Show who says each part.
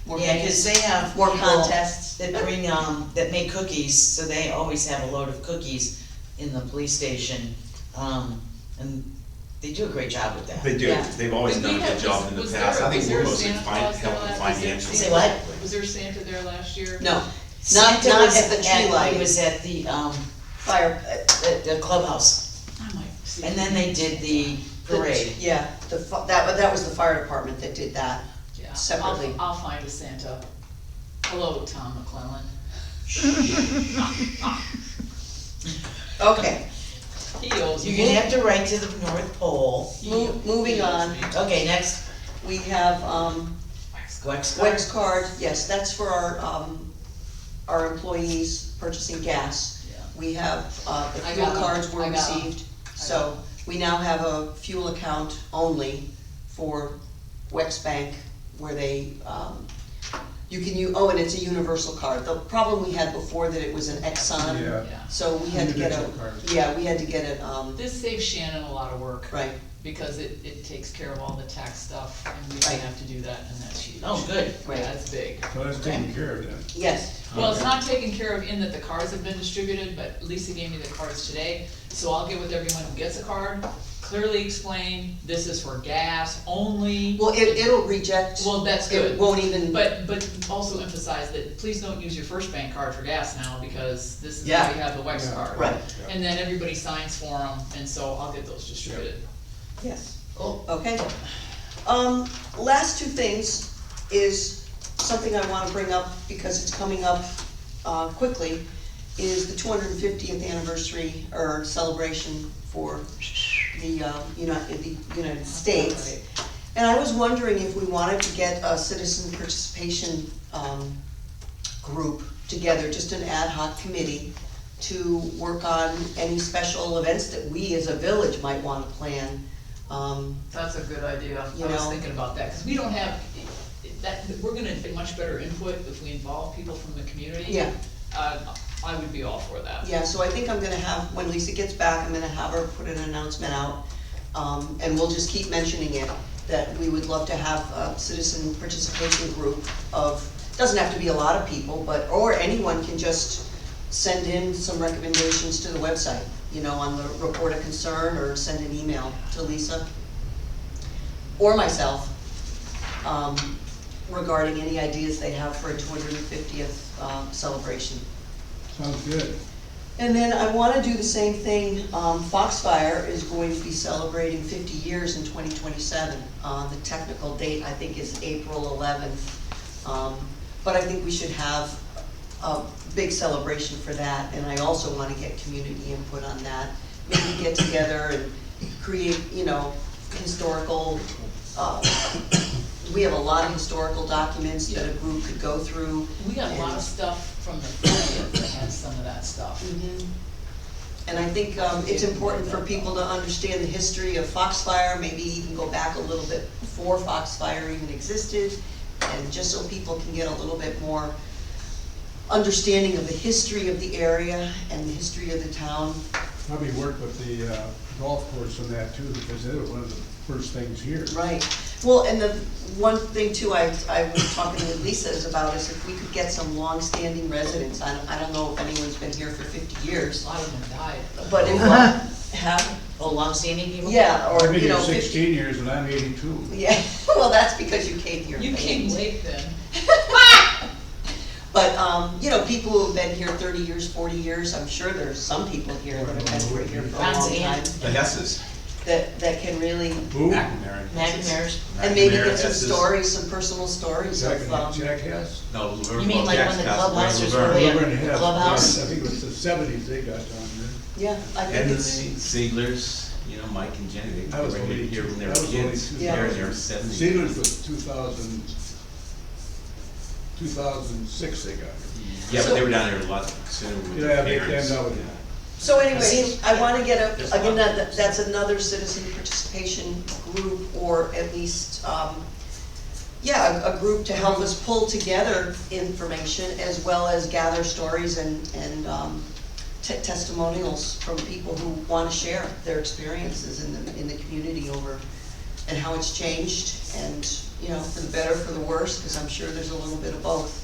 Speaker 1: More
Speaker 2: Yeah, cause they have
Speaker 1: More
Speaker 2: people
Speaker 1: contests.
Speaker 2: that bring, um, that make cookies, so they always have a load of cookies in the police station. Um, and they do a great job with that.
Speaker 3: They do,
Speaker 1: Yeah.
Speaker 3: they've always
Speaker 4: Did
Speaker 3: done a
Speaker 4: we
Speaker 3: good
Speaker 4: have-
Speaker 3: job in the
Speaker 4: was
Speaker 3: past,
Speaker 4: there-
Speaker 3: I think
Speaker 4: was
Speaker 3: we're
Speaker 4: there a
Speaker 3: mostly
Speaker 4: Santa
Speaker 3: fin-
Speaker 4: Claus
Speaker 3: helping
Speaker 4: there last year?
Speaker 3: financially.
Speaker 2: Say what?
Speaker 4: Was there Santa there last year?
Speaker 1: No,
Speaker 2: Santa
Speaker 1: not
Speaker 2: was
Speaker 1: at the tree lighting.
Speaker 2: He was at the, um,
Speaker 1: fire, uh,
Speaker 2: the the clubhouse,
Speaker 4: I might see.
Speaker 2: and then they did
Speaker 1: the-
Speaker 2: the parade.
Speaker 1: Yeah, the, fi- that, that was the fire department that did that.
Speaker 4: Yeah, I'll-
Speaker 1: separately.
Speaker 4: I'll find a Santa. Hello, Tom McClellan.
Speaker 1: Okay,
Speaker 4: He owes
Speaker 2: You're gonna
Speaker 4: me.
Speaker 2: have to write to the North Pole.
Speaker 4: He-
Speaker 1: Mo- moving
Speaker 4: he owes
Speaker 1: on.
Speaker 4: me.
Speaker 2: Okay, next,
Speaker 1: we have, um,
Speaker 2: Wex card.
Speaker 1: Wex card, yes, that's for our, um, our employees purchasing gas.
Speaker 4: Yeah.
Speaker 1: We have, uh, the
Speaker 4: I
Speaker 1: fuel
Speaker 4: got 'em.
Speaker 1: cards were
Speaker 4: I got 'em.
Speaker 1: received, so we now have a fuel account only for Wex Bank where they, um, you can, you, oh, and it's a universal card. The problem we had before that it was an Exxon.
Speaker 5: Yeah.
Speaker 4: Yeah.
Speaker 1: So we had to get
Speaker 5: Individual card.
Speaker 1: a, yeah, we had to get it, um,
Speaker 4: This saves Shannon a lot of work.
Speaker 1: right,
Speaker 4: Because it, it takes care of all the tax stuff, and we don't
Speaker 1: Right.
Speaker 4: have to do that, and that's huge.
Speaker 2: Oh, good.
Speaker 1: Right.
Speaker 4: That's big.
Speaker 5: So that's taken care of then.
Speaker 1: yes,
Speaker 4: Well, it's
Speaker 5: Okay.
Speaker 4: not taken care of in that the cards have been distributed, but Lisa gave me the cards today, so I'll get with everyone who gets a card, clearly explain, this is for gas only.
Speaker 1: well, it, it'll reject,
Speaker 4: Well, that's
Speaker 1: it
Speaker 4: good,
Speaker 1: won't even,
Speaker 4: but, but also emphasize that, please don't use your first bank card for gas now, because this is
Speaker 1: Yeah.
Speaker 4: how you have the Wex
Speaker 5: Yeah.
Speaker 4: card.
Speaker 1: right,
Speaker 4: And then everybody signs for them, and so I'll get those distributed.
Speaker 1: yes.
Speaker 2: Oh,
Speaker 1: Okay. Um, last two things is something I wanna bring up because it's coming up, uh, quickly, is the two hundred and fiftieth anniversary or celebration for the, uh, United, the United States.
Speaker 4: Right.
Speaker 1: And I was wondering if we wanted to get a citizen participation, um, group together, just an ad hoc committee to work on any special events that we as a village might wanna plan. Um,
Speaker 4: That's a good idea. I
Speaker 1: You
Speaker 4: was
Speaker 1: know?
Speaker 4: thinking about that, because we don't have, that, we're gonna get much better input if we involve people from the community.
Speaker 1: yeah,
Speaker 4: Uh, I would be all for that.
Speaker 1: yeah, so I think I'm gonna have, when Lisa gets back, I'm gonna have her put an announcement out. Um, and we'll just keep mentioning it, that we would love to have a citizen participation group of, doesn't have to be a lot of people, but, or anyone can just send in some recommendations to the website, you know, on the report of concern, or send an email to Lisa or myself, um, regarding any ideas they have for a two hundred and fiftieth, um, celebration.
Speaker 5: Sounds good.
Speaker 1: And then I wanna do the same thing, um, Foxfire is going to be celebrating fifty years in twenty twenty-seven. Uh, the technical date, I think, is April eleventh. Um, but I think we should have a big celebration for that, and I also wanna get community input on that. Maybe get together and create, you know, historical, uh, we have a lot of historical documents that a group could go through.
Speaker 4: We got a lot of stuff from the forties that had some of that stuff.
Speaker 1: Mhm. And I think um, it's important for people to understand the history of Foxfire, maybe even go back a little bit before Foxfire even existed, and just so people can get a little bit more understanding of the history of the area and the history of the town.
Speaker 5: Probably work with the uh, golf course on that too, because they were one of the first things here.
Speaker 1: Right. Well, and the one thing too, I, I was talking with Lisa is about is if we could get some longstanding residents. I don't, I don't know if anyone's been here for fifty
Speaker 4: A
Speaker 1: years,
Speaker 4: lot of them died.
Speaker 1: but if, uh, have,
Speaker 2: oh, longstanding people?
Speaker 1: yeah,
Speaker 5: I've
Speaker 1: or,
Speaker 5: been
Speaker 1: you
Speaker 5: here
Speaker 1: know, fifty.
Speaker 5: sixteen years and I'm eighty-two.
Speaker 1: Yeah, well, that's because you came here.
Speaker 4: You
Speaker 1: late.
Speaker 4: came late then.
Speaker 1: But, um, you know, people who have been here thirty years, forty years, I'm sure there's some people here that have been here for a
Speaker 2: That's
Speaker 1: long time,
Speaker 2: Ann.
Speaker 3: The Hesses,
Speaker 1: that, that can really,
Speaker 5: Who?
Speaker 3: McNamara.
Speaker 2: McNamara's.
Speaker 1: and maybe
Speaker 3: McNamara
Speaker 1: get some
Speaker 3: Hesses.
Speaker 1: stories, some personal stories
Speaker 5: Jack,
Speaker 1: of, um, Oh,
Speaker 5: Jack Hess?
Speaker 3: No, Laverne,
Speaker 2: You mean
Speaker 3: well,
Speaker 2: like
Speaker 3: Jack's
Speaker 2: when the
Speaker 3: passed away,
Speaker 2: clubhouse was
Speaker 3: Laverne.
Speaker 2: really- Yeah,
Speaker 5: Laverne Hess.
Speaker 2: clubhouse.
Speaker 5: I think it was the seventies they got down there.
Speaker 1: yeah, I think
Speaker 3: Edmund
Speaker 1: it's,
Speaker 3: Ziegler's, you know, Mike and Jenny, they
Speaker 5: That
Speaker 3: were
Speaker 5: was only
Speaker 3: right here when they were
Speaker 5: two- that was only
Speaker 3: kids,
Speaker 5: two
Speaker 1: Yeah.
Speaker 3: they're in their
Speaker 5: thousand.
Speaker 3: seventies.
Speaker 5: Sealer's was two thousand, two thousand six they got here.
Speaker 3: Yeah, but they were down there a lot sooner with
Speaker 5: Yeah,
Speaker 3: their
Speaker 5: they came
Speaker 3: parents.
Speaker 5: down with it.
Speaker 1: so anyway, I wanna get a,
Speaker 3: There's a
Speaker 1: again,
Speaker 3: lot.
Speaker 1: that, that's another citizen participation group, or at least, um, yeah, a, a group to help us pull together information as well as gather stories and, and, um, te- testimonials from people who wanna share their experiences in the, in the community over and how it's changed, and, you know, for the better, for the worse, because I'm sure there's a little bit of both.